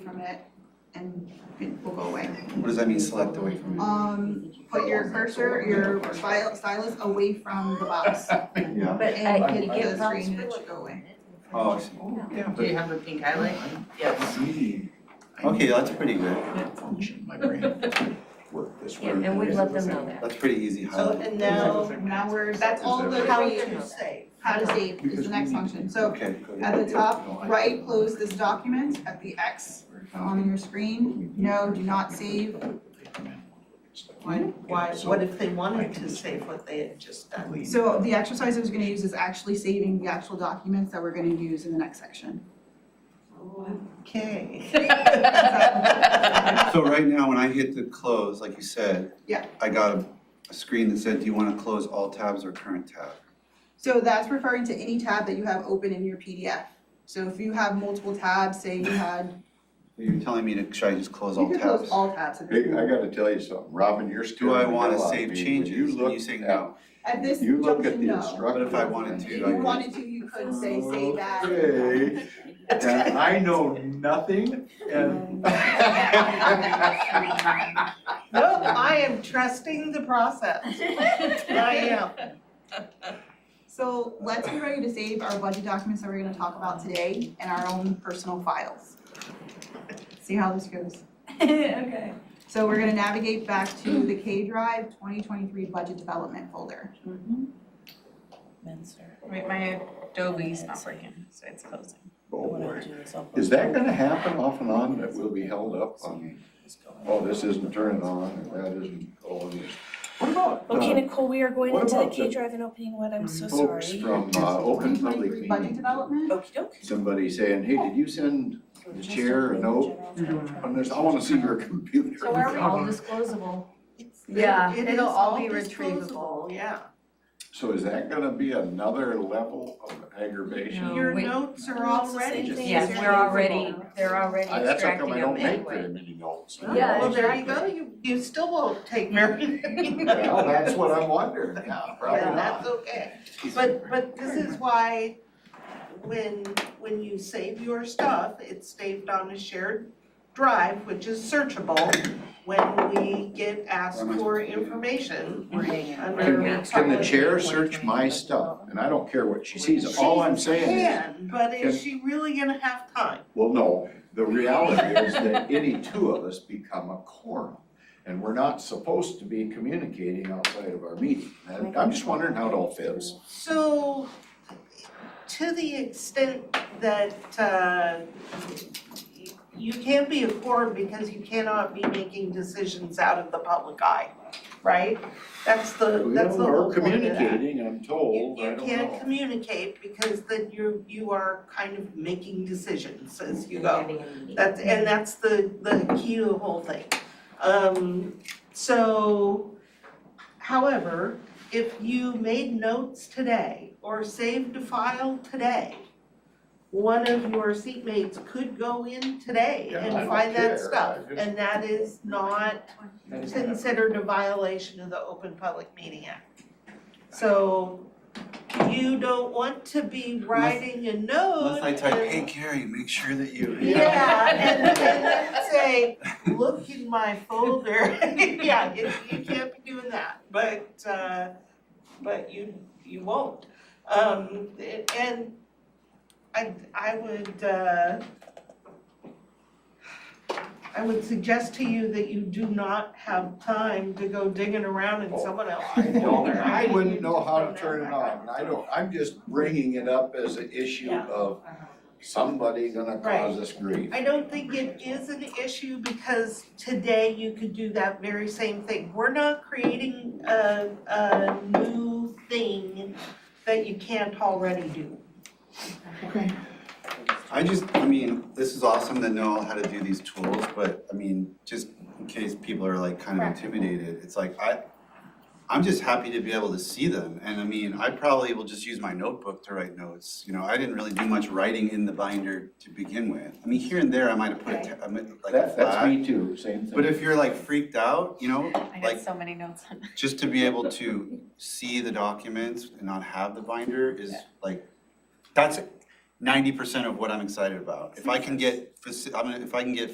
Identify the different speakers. Speaker 1: from it and it will go away.
Speaker 2: What does that mean, select away from it?
Speaker 1: Um, put your cursor, your styl- stylus away from the box
Speaker 2: Yeah.
Speaker 1: and
Speaker 3: I-
Speaker 1: hit
Speaker 3: I-
Speaker 1: the screen and it should go away.
Speaker 2: Oh, I see. yeah,
Speaker 4: Do you
Speaker 2: but,
Speaker 4: have a pink highlight? Yes.
Speaker 2: okay, that's pretty good,
Speaker 5: Function, my brain work this way.
Speaker 3: Yeah, and we let them know that.
Speaker 2: that's pretty easy
Speaker 1: So
Speaker 2: highlight.
Speaker 1: and now, now we're, that's all the how you save, how to save is the next function. So
Speaker 2: Okay, good.
Speaker 1: at the top, right, close this document at the X on your screen. No, do not save.
Speaker 4: Why, why, what if they wanted to save what they had just done?
Speaker 1: So the exercise I was gonna use is actually saving the actual documents that we're gonna use in the next section.
Speaker 4: Okay.
Speaker 2: So right now, when I hit the close, like you said.
Speaker 1: Yeah.
Speaker 2: I got a, a screen that said, do you wanna close all tabs or current tab?
Speaker 1: So that's referring to any tab that you have open in your PDF. So if you have multiple tabs, say you had,
Speaker 2: You're telling me to, should I just close
Speaker 1: you
Speaker 2: all
Speaker 1: could close
Speaker 2: tabs?
Speaker 1: all tabs at this
Speaker 5: Hey, I
Speaker 1: point.
Speaker 5: gotta tell you something, Robin, you're still.
Speaker 2: Do I
Speaker 5: the
Speaker 2: wanna
Speaker 5: hell out of
Speaker 2: save
Speaker 5: me when
Speaker 2: changes?
Speaker 5: look
Speaker 2: And you say
Speaker 5: at-
Speaker 2: no.
Speaker 1: At this
Speaker 5: You look at
Speaker 1: junction,
Speaker 5: the
Speaker 1: no.
Speaker 5: instructor.
Speaker 2: But if I wanted to,
Speaker 1: If
Speaker 2: I
Speaker 1: you
Speaker 2: could-
Speaker 1: wanted to, you could say save as.
Speaker 5: Hey, and I know nothing and.
Speaker 4: No, I am trusting the process. I am.
Speaker 1: So let's be ready to save our budget documents that we're gonna talk about today and our own personal files. See how this goes.
Speaker 6: Okay.
Speaker 1: So we're gonna navigate back to the K Drive twenty twenty-three budget development folder.
Speaker 6: Wait, my Adobe's not working, so it's closing.
Speaker 5: Oh, boy. Is that gonna happen off and on, that we'll be held up on, oh, this isn't turning on, and that isn't, oh, this. What about,
Speaker 7: Okay,
Speaker 5: uh,
Speaker 7: Nicole, we are going
Speaker 5: What
Speaker 7: into the
Speaker 5: about the
Speaker 7: K Drive and opening one, I'm so sorry.
Speaker 5: folks from, uh, open public
Speaker 1: 2023 Budget
Speaker 5: meeting,
Speaker 1: development?
Speaker 7: Okey doke.
Speaker 5: somebody saying, hey, did you send the chair a note on this, I wanna see your computer.
Speaker 3: So are we
Speaker 5: Um,
Speaker 3: all disclosable?
Speaker 4: Yeah,
Speaker 3: It
Speaker 4: it'll
Speaker 3: is
Speaker 4: all
Speaker 3: all
Speaker 4: be
Speaker 3: disposable.
Speaker 4: retrievable, yeah.
Speaker 5: So is that gonna be another level of aggravation?
Speaker 3: No.
Speaker 4: Your
Speaker 3: Oh, wait.
Speaker 4: notes are
Speaker 7: Well, it's the
Speaker 4: already.
Speaker 7: same thing.
Speaker 3: Yes, we're already, they're already
Speaker 5: I- That's how
Speaker 3: extracting
Speaker 5: come I don't
Speaker 3: them
Speaker 5: make
Speaker 3: anyway.
Speaker 5: very many notes.
Speaker 3: Yeah,
Speaker 4: Oh, Well, there you go, you, you still won't take very many.
Speaker 5: Well, that's what I'm wondering, yeah, probably
Speaker 4: Yeah,
Speaker 5: not.
Speaker 4: that's okay. But, but this is why when, when you save your stuff, it's saved on a shared drive, which is searchable when we get asked for information under.
Speaker 5: Can, can the chair search my stuff? And I don't care what she sees, all I'm saying is,
Speaker 4: Can, but is she really gonna have time?
Speaker 5: well, no, the reality is that any two of us become a quorum. And we're not supposed to be communicating outside of our meeting. And I'm just wondering how it all fits.
Speaker 4: So, to the extent that, uh, you can't be a quorum because you cannot be making decisions out of the public eye, right? That's the, that's the whole
Speaker 5: Or
Speaker 4: point of that.
Speaker 5: communicating, I'm
Speaker 4: You,
Speaker 5: told, I
Speaker 4: you
Speaker 5: don't know.
Speaker 4: can't communicate because then you're, you are kind of making decisions as you go. That's, and that's the, the key to the whole thing. Um, so, however, if you made notes today or saved a file today, one of your seatmates could go in today
Speaker 5: Yeah, I
Speaker 4: and
Speaker 5: don't
Speaker 4: find
Speaker 5: care, I
Speaker 4: that stuff.
Speaker 5: just-
Speaker 4: And that is not considered a violation of the Open Public Meeting Act. So you don't want to be writing a note
Speaker 2: Unless I type,
Speaker 4: and-
Speaker 2: hey Gary, make sure that you.
Speaker 4: yeah, and and then say, look in my folder, yeah, you you can't be doing that, but uh but you you won't. Um and I I would uh I would suggest to you that you do not have time to go digging around in someone
Speaker 5: I
Speaker 4: else's
Speaker 5: don't,
Speaker 4: folder.
Speaker 5: I
Speaker 4: mean,
Speaker 5: wouldn't
Speaker 4: you
Speaker 5: know
Speaker 4: just
Speaker 5: how
Speaker 4: don't
Speaker 5: to
Speaker 4: have
Speaker 5: turn it
Speaker 4: that
Speaker 5: on, I don't, I'm just bringing it up as an issue
Speaker 4: Yeah.
Speaker 5: of somebody gonna cause us grief.
Speaker 4: I don't think it is an issue because today you could do that very same thing. We're not creating a, a new thing that you can't already do.
Speaker 2: I just, I mean, this is awesome to know how to do these tools, but I mean, just in case people are like kind of intimidated, it's like I, I'm just happy to be able to see them, and I mean, I probably will just use my notebook to write notes, you know, I didn't really do much writing in the binder to begin with. I mean, here and there, I might have put a, ta- I might- like a
Speaker 5: That, that's
Speaker 2: flag,
Speaker 5: me too, same thing.
Speaker 2: but if you're like freaked out, you know,
Speaker 6: I
Speaker 2: like,
Speaker 6: got so many notes on that.
Speaker 2: just to be able to see the documents and not have the binder is like, that's ninety percent of what I'm excited about. If I can get, faci- I'm gonna, if I can get